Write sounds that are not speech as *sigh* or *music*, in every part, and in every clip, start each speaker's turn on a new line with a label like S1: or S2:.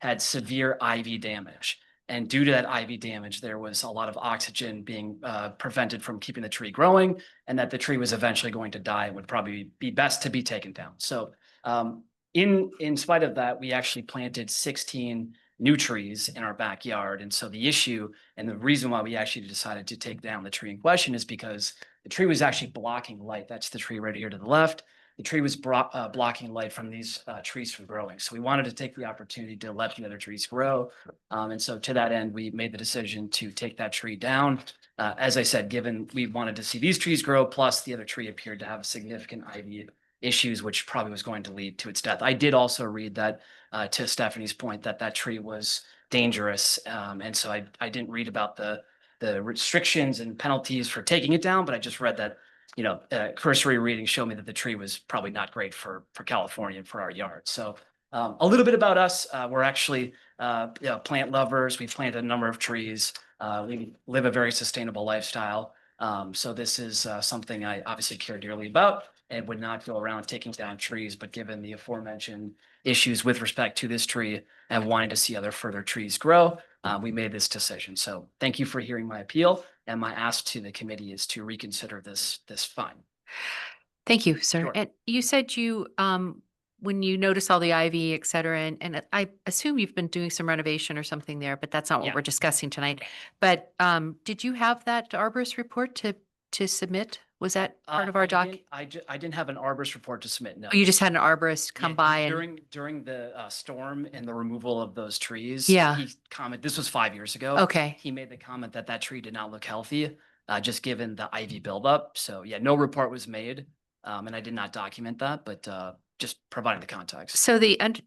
S1: had severe IV damage. And due to that IV damage, there was a lot of oxygen being uh, prevented from keeping the tree growing and that the tree was eventually going to die and would probably be best to be taken down. So um, in, in spite of that, we actually planted sixteen new trees in our backyard. And so the issue and the reason why we actually decided to take down the tree in question is because the tree was actually blocking light. That's the tree right here to the left. The tree was bro- uh, blocking light from these uh, trees from growing. So we wanted to take the opportunity to let the other trees grow. Um, and so to that end, we made the decision to take that tree down. Uh, as I said, given we wanted to see these trees grow, plus the other tree appeared to have significant ivy issues, which probably was going to lead to its death. I did also read that uh, to Stephanie's point that that tree was dangerous. Um, and so I, I didn't read about the, the restrictions and penalties for taking it down, but I just read that, you know, uh, cursory reading showed me that the tree was probably not great for, for California and for our yard. So um, a little bit about us, uh, we're actually, uh, you know, plant lovers. We've planted a number of trees. Uh, we live a very sustainable lifestyle. Um, so this is, uh, something I obviously care dearly about and would not go around taking down trees, but given the aforementioned issues with respect to this tree and wanting to see other further trees grow, uh, we made this decision. So thank you for hearing my appeal. And my ask to the committee is to reconsider this, this fine.
S2: Thank you, sir.
S1: Sure.
S2: And you said you, um, when you notice all the ivy, et cetera, and, and I assume you've been doing some renovation or something there, but that's not
S1: Yeah.
S2: what we're discussing tonight. But, um, did you have that arborist report to, to submit? Was that
S1: Uh,
S2: part of our
S1: I
S2: doc?
S1: didn't- I, ju- I didn't have an arborist report to submit, no.
S2: Oh, You just had an arborist come
S1: Yeah,
S2: by and,
S1: During, during the uh, storm and the removal of those trees.
S2: Yeah.
S1: He comment, this was five years ago.
S2: okay,
S1: He made the comment that that tree did not look healthy, uh, just given the ivy buildup. So yeah, no report was made. Um, and I did not document that, but, uh, just providing the context.
S2: so uh the, und-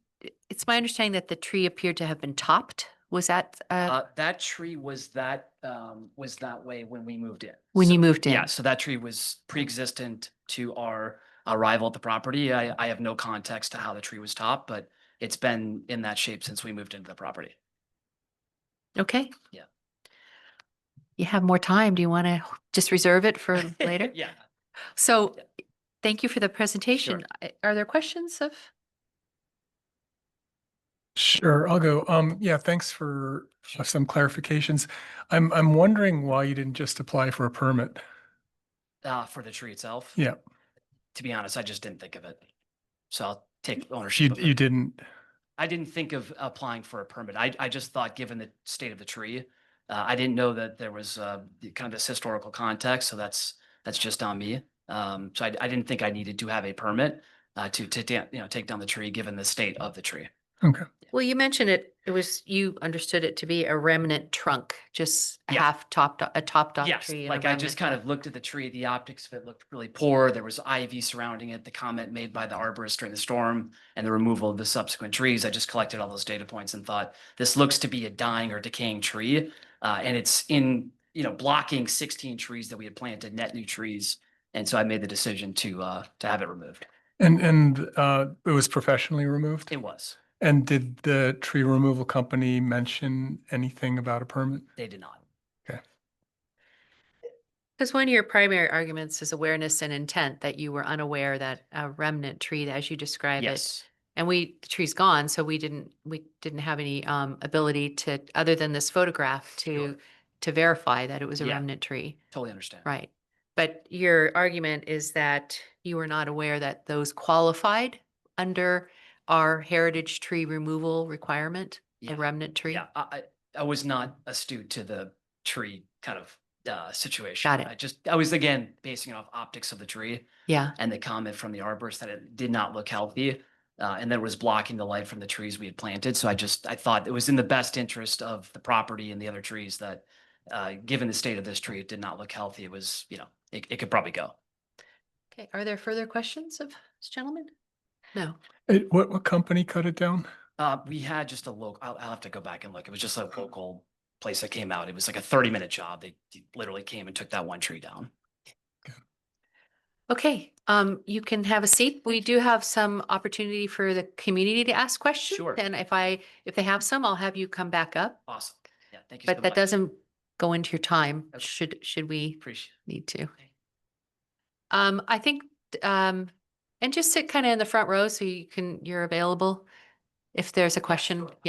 S2: it's my understanding that the tree appeared to have been topped. Was that, uh,
S1: Uh, that tree was that, um, was that way when we moved in.
S2: when
S1: So-
S2: you moved in?
S1: Yeah, so that tree was pre-existent to our arrival at the property. I, I have no context to how the tree was topped, but it's been in that shape since we moved into the property. *laughs*
S2: Okay.
S1: Yeah.
S2: You have more time. Do you want to just reserve it
S1: *laughs*
S2: for later?
S1: Yeah.
S2: So thank you for the presentation. I- Are there questions of?
S3: Sure, I'll go. Um, yeah, thanks for uh, some clarifications. I'm, I'm wondering why you didn't just apply for a permit.
S1: Uh, for the tree itself?
S3: Yeah,
S1: To be honest, I just didn't think of it. So I'll take ownership
S3: you,
S1: of
S3: you
S1: it.
S3: didn't.
S1: I didn't think of applying for a permit. I, I just thought, given the state of the tree, uh, I didn't know that there was, uh, the- kind of this historical context, so that's, that's just on me. Um, so I, I didn't think I needed to have a permit, uh, to, to, da- you know, take down the tree, given the state of the tree.
S2: Well, you mentioned it, it was, you understood it to be a remnant trunk, just a
S1: Yeah.
S2: half topped, o- a topped off
S1: Yes,
S2: tree. and a
S1: like I just
S2: remnant
S1: kind
S2: trunk.
S1: of looked at the tree, the optics of it looked really poor. There was ivy surrounding it, the comment made by the arborist during the storm and the removal of the subsequent trees. I just collected all those data points and thought, this looks to be a dying or decaying tree. Uh, and it's in, you know, blocking sixteen trees that we had planted, net new trees. And so I made the decision to, uh, to have it removed.
S3: And, and, uh, it was professionally removed?
S1: It was,
S3: And did the tree removal company mention anything about a permit?
S1: they did not.
S2: Because one of your primary arguments is awareness and intent, that you were unaware that a remnant tree, as you describe it.
S1: Yes,
S2: And we, the tree's gone, so we didn't, we didn't have any um ability to, other than this photograph, to, to verify that it was a
S1: Yeah.
S2: remnant tree.
S1: totally understand.
S2: Right. But your argument is that you were not aware that those qualified under our heritage tree removal requirement,
S1: Yeah.
S2: a remnant tree?
S1: Yeah, I, I I was not astute to the tree kind of uh, situation.
S2: Got it.
S1: I just, I was again, basing it off optics of the tree
S2: Yeah,
S1: and the comment from the arborist that it did not look healthy. Uh, and that it was blocking the light from the trees we had planted. So I just, I thought it was in the best interest of the property and the other trees that, uh, given the state of this tree, it did not look healthy. It was, you know, it, it could probably go.
S2: Okay, are there further questions of this gentleman? No.
S3: It, what, what company cut it down?
S1: Uh, we had just a local, I'll, I'll have to go back and look. It was just a local place that came out. It was like a thirty minute job. They literally came and took that one tree down.
S2: Okay, um, you can have a seat. We do have some opportunity for the community to ask questions.
S1: Sure.
S2: And if I, if they have some, I'll have you come back up,
S1: Awesome. Yeah, thank you. so
S2: but that
S1: much.
S2: doesn't go into your time,
S1: Okay.
S2: should, should we
S1: Appreciate it.
S2: need to. Um, I think, d- um, and just sit kind of in the front row so you can, you're available if there's a question.
S1: sure.